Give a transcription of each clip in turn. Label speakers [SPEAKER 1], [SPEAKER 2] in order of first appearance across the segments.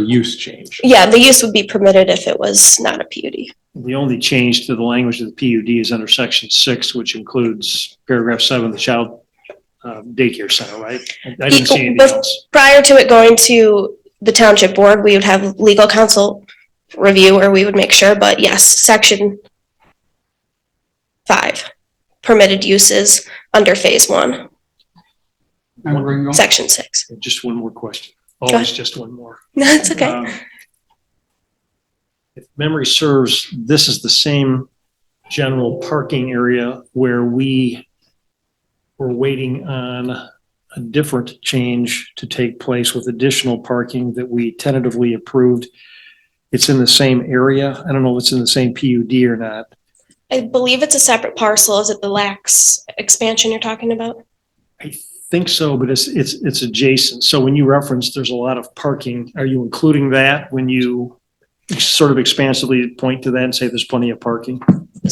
[SPEAKER 1] use change.
[SPEAKER 2] Yeah, the use would be permitted if it was not a PUD.
[SPEAKER 3] The only change to the language of the PUD is under section six, which includes paragraph seven, the child uh, daycare center, right? I didn't see anything
[SPEAKER 2] Bef-
[SPEAKER 3] else.
[SPEAKER 2] Prior to it going to the township board, we would have legal counsel review or we would make sure, but yes, section five, permitted uses under phase one,
[SPEAKER 1] And we're going-
[SPEAKER 2] section six.
[SPEAKER 3] Just one more question.
[SPEAKER 2] ahead.
[SPEAKER 3] Always just one more.
[SPEAKER 2] No, it's okay.
[SPEAKER 3] Um, If memory serves, this is the same general parking area where we were waiting on a different change to take place with additional parking that we tentatively approved. It's in the same area. I don't know if it's in the same PUD or not.
[SPEAKER 2] I believe it's a separate parcel. Is it the lax expansion you're talking about?
[SPEAKER 3] I think so, but it's, it's, it's adjacent. So when you reference, there's a lot of parking, are you including that when you sort of expansively point to that and say there's plenty of parking?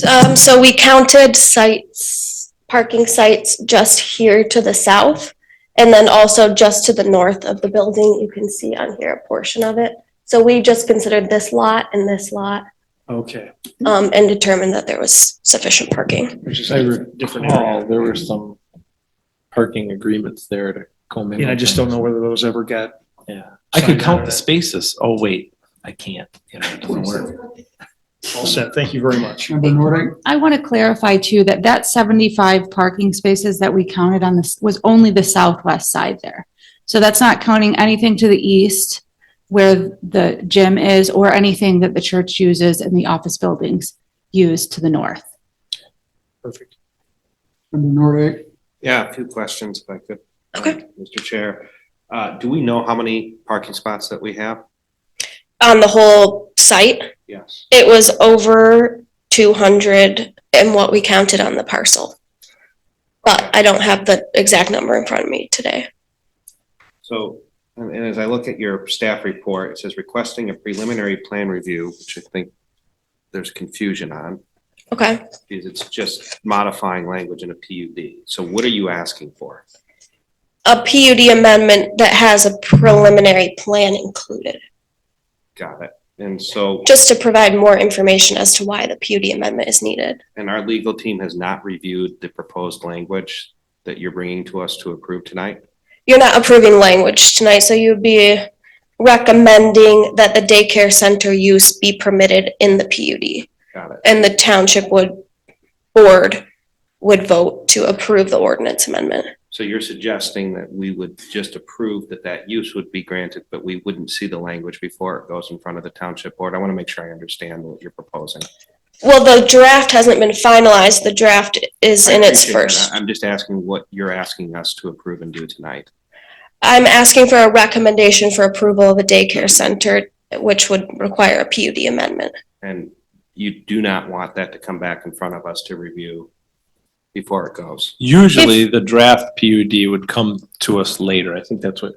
[SPEAKER 2] Um, so we counted sites, parking sites just here to the south. And then also just to the north of the building, you can see on here a portion of it. So we just considered this lot and this lot,
[SPEAKER 3] Okay,
[SPEAKER 2] um, and determined that there was sufficient parking.
[SPEAKER 3] which is
[SPEAKER 1] I
[SPEAKER 3] a different
[SPEAKER 1] recall
[SPEAKER 3] area.
[SPEAKER 1] Oh, there were some parking agreements there to commingle.
[SPEAKER 3] And I just don't
[SPEAKER 1] things.
[SPEAKER 3] know whether those ever got,
[SPEAKER 1] Yeah, I could
[SPEAKER 3] Signed
[SPEAKER 1] count
[SPEAKER 3] out.
[SPEAKER 1] the spaces. Oh, wait, I can't. You know, it doesn't work.
[SPEAKER 3] all set. Thank you very much.
[SPEAKER 4] Member Nordike,
[SPEAKER 5] I want to clarify too, that that 75 parking spaces that we counted on this was only the southwest side there. So that's not counting anything to the east where the gym is or anything that the church uses and the office buildings use to the north.
[SPEAKER 3] Perfect.
[SPEAKER 4] Member Nordike,
[SPEAKER 6] Yeah, a few questions if I could. uh,
[SPEAKER 2] Okay.
[SPEAKER 6] Mr. Chair, uh, do we know how many parking spots that we have?
[SPEAKER 2] On the whole site,
[SPEAKER 6] Yes.
[SPEAKER 2] it was over two hundred and what we counted on the parcel. But I don't have the exact number in front of me today.
[SPEAKER 6] So, and, and as I look at your staff report, it says requesting a preliminary plan review, which I think there's confusion on,
[SPEAKER 2] Okay.
[SPEAKER 6] because it's just modifying language in a PUD. So what are you asking for?
[SPEAKER 2] a PUD amendment that has a preliminary plan included,
[SPEAKER 6] Got it. And so,
[SPEAKER 2] just to provide more information as to why the PUD amendment is needed.
[SPEAKER 6] and our legal team has not reviewed the proposed language that you're bringing to us to approve tonight?
[SPEAKER 2] You're not approving language tonight, so you'd be recommending that the daycare center use be permitted in the PUD.
[SPEAKER 6] Got it.
[SPEAKER 2] And the township would, board would vote to approve the ordinance amendment.
[SPEAKER 6] So you're suggesting that we would just approve that that use would be granted, but we wouldn't see the language before it goes in front of the township board? I want to make sure I understand what you're proposing.
[SPEAKER 2] Well, the draft hasn't been finalized. The draft is in its
[SPEAKER 6] I appreciate that.
[SPEAKER 2] first.
[SPEAKER 6] I'm just asking what you're asking us to approve and do tonight.
[SPEAKER 2] I'm asking for a recommendation for approval of a daycare center, which would require a PUD amendment.
[SPEAKER 6] And you do not want that to come back in front of us to review before it goes.
[SPEAKER 1] Usually the draft PUD would come to us later. I think that's what,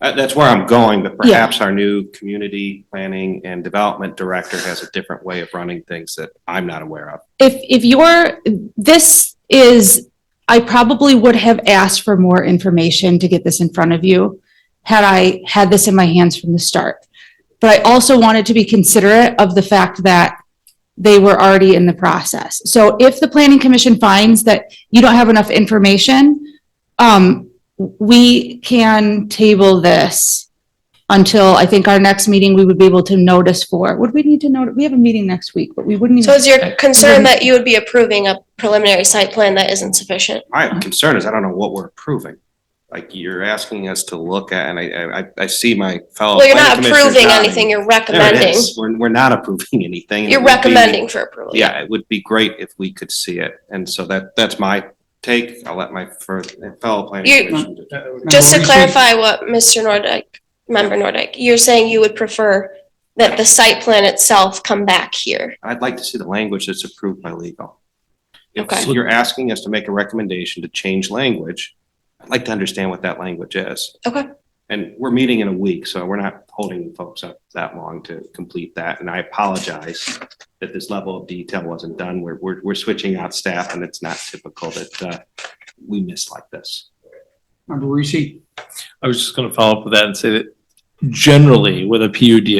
[SPEAKER 6] Uh, That's where I'm going, but perhaps our new community planning and development director has a different way of running things that I'm not aware of.
[SPEAKER 5] If, if you're, this is, I probably would have asked for more information to get this in front of you had I had this in my hands from the start. But I also wanted to be considerate of the fact that they were already in the process. So if the planning commission finds that you don't have enough information, um, we can table this until I think our next meeting, we would be able to notice for, would we need to note, we have a meeting next week, but we
[SPEAKER 4] Hmm.
[SPEAKER 5] wouldn't even.
[SPEAKER 2] So is your concern that you would be approving a preliminary site plan that isn't sufficient?
[SPEAKER 6] My concern is I don't know what we're approving. Like you're asking us to look at, and I- I, I, I see my fellow.
[SPEAKER 2] Well, you're not
[SPEAKER 6] Oh, planning commissioners
[SPEAKER 2] approving
[SPEAKER 6] nodding.
[SPEAKER 2] anything, you're
[SPEAKER 6] There it
[SPEAKER 2] recommending.
[SPEAKER 6] is. We're, we're not approving anything. It
[SPEAKER 2] You're
[SPEAKER 6] would be-
[SPEAKER 2] recommending for approval.
[SPEAKER 6] Yeah, it would be great if we could see it. And so that, that's my take. I'll let my fir- fellow
[SPEAKER 2] You-
[SPEAKER 6] planning commissioners.
[SPEAKER 2] Just
[SPEAKER 4] Well,
[SPEAKER 2] to
[SPEAKER 4] we should-
[SPEAKER 2] clarify what Mr. Nordick, member Nordick, you're saying you would prefer that the site plan itself come back here.
[SPEAKER 6] I'd like to see the language that's approved by legal. If
[SPEAKER 2] Okay.
[SPEAKER 6] you're asking us to make a recommendation to change language, I'd like to understand what that language is.
[SPEAKER 2] Okay.
[SPEAKER 6] And we're meeting in a week, so we're not holding folks up that long to complete that. And I apologize that this level of detail wasn't done. We're, we're, we're switching out staff and it's not typical that, uh, we miss like this.
[SPEAKER 4] Member Reese,
[SPEAKER 1] I was just gonna follow up with that and say that generally with a PUD,